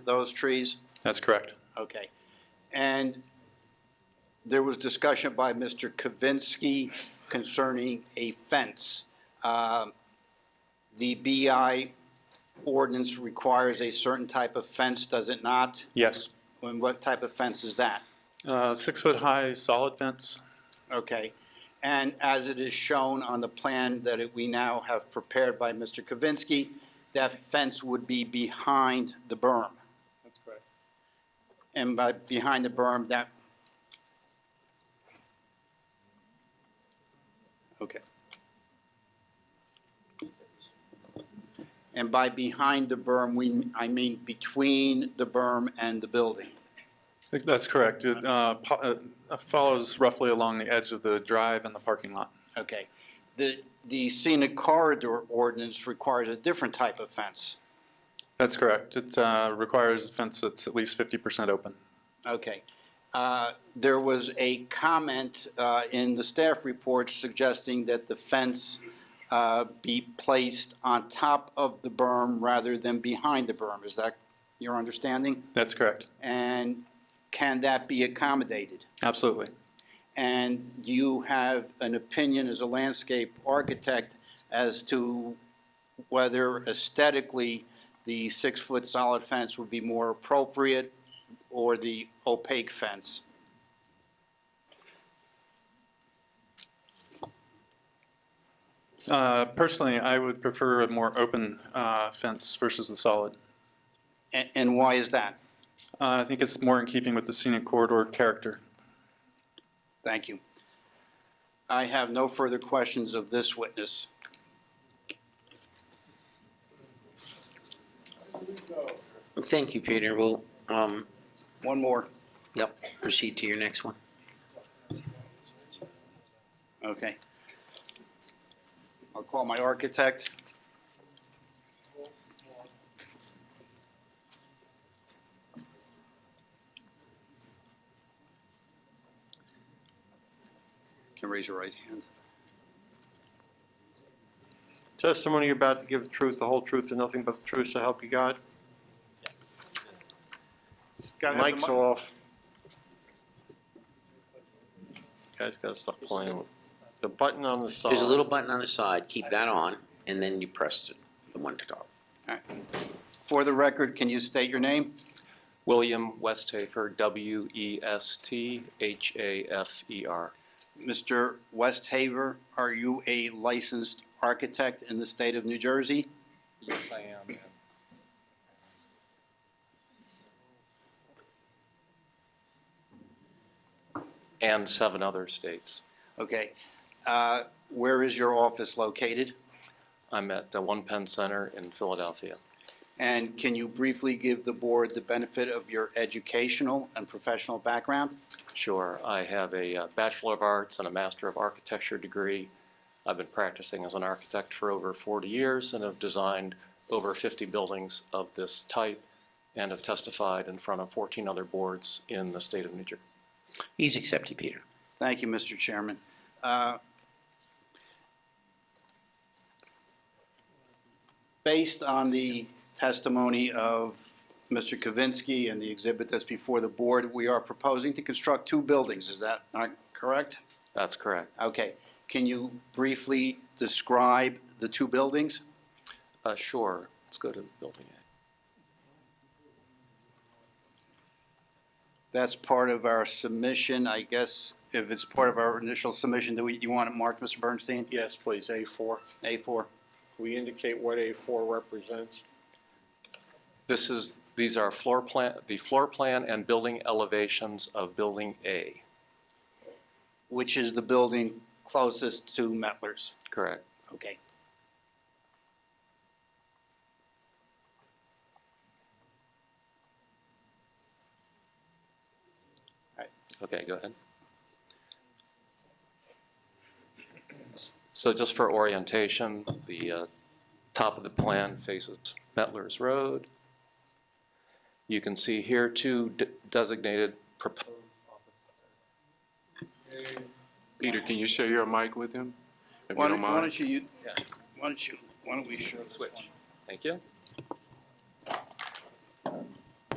those trees? That's correct. Okay. And there was discussion by Mr. Kavinsky concerning a fence. Um, The BI ordinance requires a certain type of fence, does it not? Yes. And what type of fence is that? Uh, Six-foot-high solid fence? Okay. And as it is shown on the plan that it- we now have prepared by Mr. Kavinsky, that fence would be behind the berm. That's correct. And by behind the berm, that. Okay. And by behind the berm, we, I mean between the berm and the building. That's correct. It uh, po- uh, follows roughly along the edge of the drive and the parking lot. Okay. The, the scenic corridor ordinance requires a different type of fence. That's correct. It uh, requires a fence that's at least 50% open. Okay. Uh, There was a comment uh, in the staff report suggesting that the fence uh, be placed on top of the berm rather than behind the berm. Is that your understanding? That's correct. And can that be accommodated? Absolutely. And you have an opinion as a landscape architect as to whether aesthetically the six-foot solid fence would be more appropriate or the opaque fence? Uh, Personally, I would prefer a more open uh, fence versus the solid. And, and why is that? Uh, I think it's more in keeping with the scenic corridor character. Thank you. I have no further questions of this witness. Thank you, Peter. We'll, um, One more. yep, proceed to your next one. Okay. I'll call my architect. Can raise your right hand. Testimony you're about to give the truth, the whole truth, and nothing but the truth, so help you God? Mike's off. Guys gotta stop playing. with- The button on the side. There's a little button on the side, keep that on, and then you press the, the one to go. For the record, can you state your name? William Westhafer, W E S T H A F E R. Mr. Westhaver, are you a licensed architect in the state of New Jersey? Yes, I am. And seven other states. Okay. Uh, Where is your office located? I'm at the One Penn Center in Philadelphia. And can you briefly give the board the benefit of your educational and professional background? Sure, I have a uh, Bachelor of Arts and a Master of Architecture degree. I've been practicing as an architect for over 40 years and have designed over 50 buildings of this type and have testified in front of 14 other boards in the state of New Jersey. He's accepted, Peter. Thank you, Mr. Chairman. Uh, Based on the testimony of Mr. Kavinsky and the exhibit that's before the board, we are proposing to construct two buildings, is that not correct? That's correct. Okay, can you briefly describe the two buildings? Uh, Sure, let's go to Building A. That's part of our submission, I guess, if it's part of our initial submission, do we, you want it marked, Mr. Bernstein? Yes, please, A4. A4? We indicate what A4 represents. This is, these are floor plan, the floor plan and building elevations of Building A, Which is the building closest to Mettler's? correct? Okay. Okay, go ahead. S- So just for orientation, the uh, top of the plan faces Mettler's Road. You can see here two de- designated proposed. Peter, can you share your mic with him? If you Why don't don't, why mind. don't you, you- why don't you, why don't we share this one? Thank you.